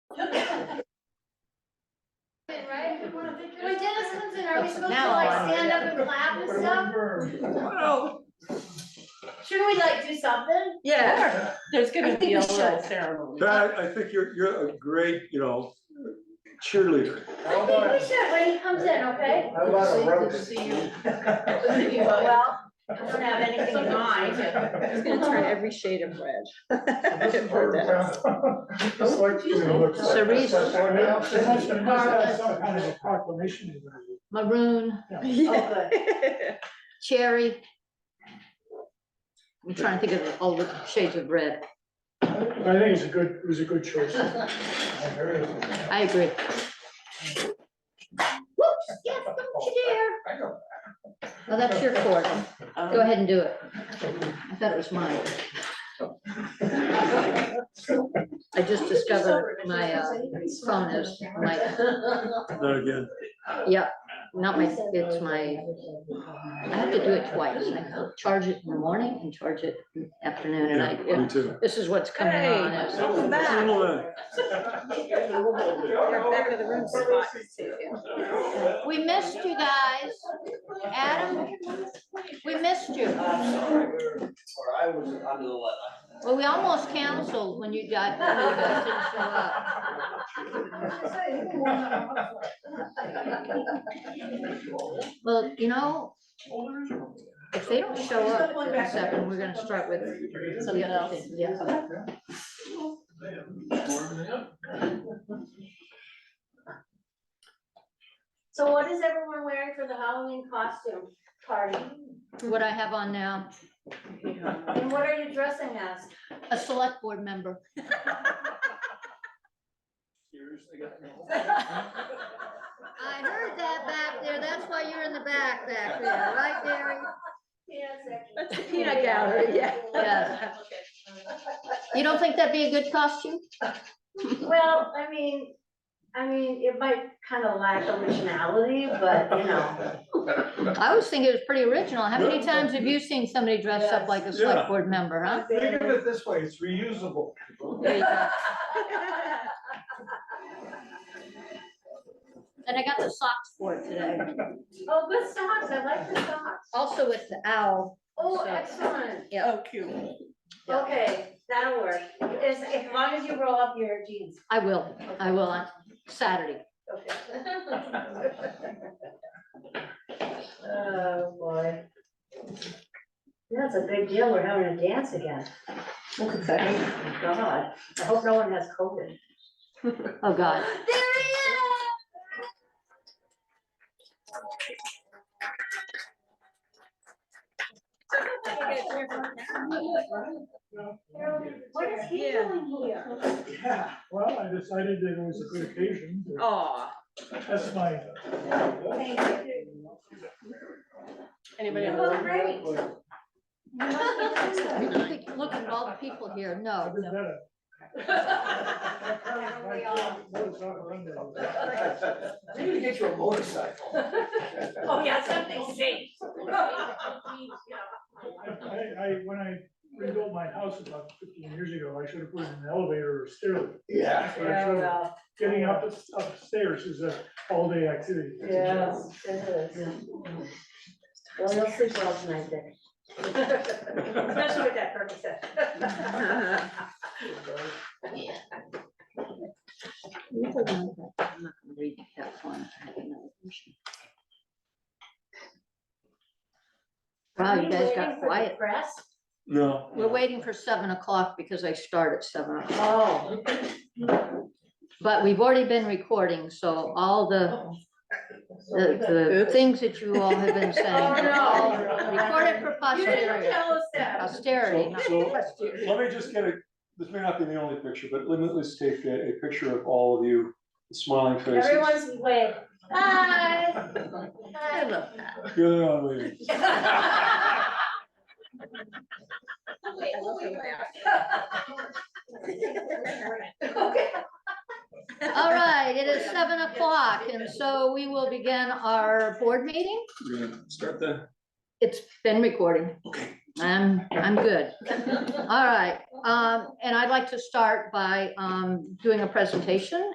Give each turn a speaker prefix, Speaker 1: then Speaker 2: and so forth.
Speaker 1: When Dennis comes in, are we supposed to
Speaker 2: Now
Speaker 1: like
Speaker 2: I-
Speaker 1: stand up and clap and stuff?
Speaker 2: Wow.
Speaker 1: Shouldn't we like do something?
Speaker 2: Yeah, there's
Speaker 3: I
Speaker 2: gonna
Speaker 3: think
Speaker 2: be a
Speaker 3: we
Speaker 2: little
Speaker 3: should.
Speaker 2: ceremony.
Speaker 4: That, I think you're, you're a great, you know, cheerleader.
Speaker 1: I think we should when he comes in, okay?
Speaker 5: How about a roast?
Speaker 1: Well, I don't have anything in mind.
Speaker 3: It's
Speaker 5: It's
Speaker 3: gonna turn every shade of red.
Speaker 5: This is for example. Just like, you know, looks like.
Speaker 3: Cherise.
Speaker 6: Some kind of a proclamation event.
Speaker 3: Maroon,
Speaker 2: Yeah.
Speaker 3: cherry. I'm trying to think of all the shades of red.
Speaker 6: I think it's a good, it was a good choice.
Speaker 3: I agree.
Speaker 1: Whoops, yes, don't you dare.
Speaker 5: I know.
Speaker 3: Well, that's your court.
Speaker 2: Um,
Speaker 3: Go ahead and do it. I thought it was mine. I just discovered my uh, phone is my,
Speaker 4: Not again.
Speaker 3: yeah, not my, it's my, I have to do it twice. I charge it in the morning and charge it in the afternoon and I,
Speaker 4: Yeah, Me too.
Speaker 3: this is what's coming
Speaker 2: Hey,
Speaker 3: on. is-
Speaker 2: welcome back.
Speaker 4: Single man.
Speaker 5: You're
Speaker 2: back of the room spot.
Speaker 3: We missed you guys. Adam, we missed you.
Speaker 7: Or I was under the weather.
Speaker 3: Well, we almost canceled when you got, when you guys didn't show up. Well, you know, if they don't show up at seven, we're gonna start with something else. Yeah.
Speaker 1: So what is everyone wearing for the Halloween costume party?
Speaker 3: What I have on now,
Speaker 1: And what are you dressing as?
Speaker 3: a select board member. I heard that back there. That's why you're in the back back there, right, Gary?
Speaker 1: Yes,
Speaker 2: That's the peanut gallery, yeah.
Speaker 3: Yes. You don't think that'd be a good costume?
Speaker 1: Well, I mean, I mean, it might kind of lack originality, but you know.
Speaker 3: I always think it was pretty original. How many times have you seen somebody dressed up like a
Speaker 4: Yeah.
Speaker 3: select board member, huh?
Speaker 5: Think of it this way, it's reusable.
Speaker 3: There you go. And I got the socks for it today.
Speaker 1: Oh, good socks, I like the socks.
Speaker 3: Also with the owl.
Speaker 1: Oh,
Speaker 3: So-
Speaker 1: excellent.
Speaker 2: Oh, cute.
Speaker 1: Okay, that'll work. As, as long as you roll up your jeans.
Speaker 3: I will, I will on Saturday.
Speaker 1: Okay. Oh, boy. That's a big deal, we're having a dance again. Thank Oh, God, I hope no one has COVID.
Speaker 3: Oh, God.
Speaker 1: There he is! What is he
Speaker 2: Yeah.
Speaker 1: doing here?
Speaker 6: Yeah, well, I decided that it was a good occasion.
Speaker 2: Aw,
Speaker 6: That's my,
Speaker 1: Thank you.
Speaker 2: anybody?
Speaker 1: You
Speaker 2: else?
Speaker 1: look great.
Speaker 3: Look at all the people here.
Speaker 6: I've
Speaker 3: No,
Speaker 6: been better.
Speaker 1: we all-
Speaker 7: Maybe get you a motorcycle.
Speaker 1: Oh, yeah, something safe.
Speaker 6: I, I, when I rebuilt my house about fifteen years ago, I should have put in an elevator or stairway.
Speaker 7: Yeah.
Speaker 6: That's what I should've- Getting up upstairs is a all-day activity. It's a job.
Speaker 1: Yes, it is. Well, you'll sleep well tonight then. Especially with that purpose.
Speaker 3: I'm not gonna read that one. Wow, you guys got quiet.
Speaker 1: Press?
Speaker 4: No.
Speaker 3: We're waiting for seven o'clock because I start at seven o'clock.
Speaker 1: Oh,
Speaker 3: But we've already been recording, so all the, the, the things that you all have been saying.
Speaker 1: Oh, no.
Speaker 3: Recorded for
Speaker 1: you didn't
Speaker 3: posterity,
Speaker 1: tell us that.
Speaker 3: posterity,
Speaker 4: So,
Speaker 3: not
Speaker 4: so, let me just get a, this may not be the only picture, but let me at least take a, a picture of all of you smiling faces.
Speaker 1: Everyone's way, hi.
Speaker 2: I
Speaker 1: Hi.
Speaker 2: love that.
Speaker 4: You're the only one waiting.
Speaker 2: I love that.
Speaker 1: Okay.
Speaker 3: All right, it is seven o'clock, and so we will begin our board meeting.
Speaker 4: We're gonna start then.
Speaker 3: It's been recording. I'm, I'm good. Um, All right, um, and I'd like to start by, um, doing a presentation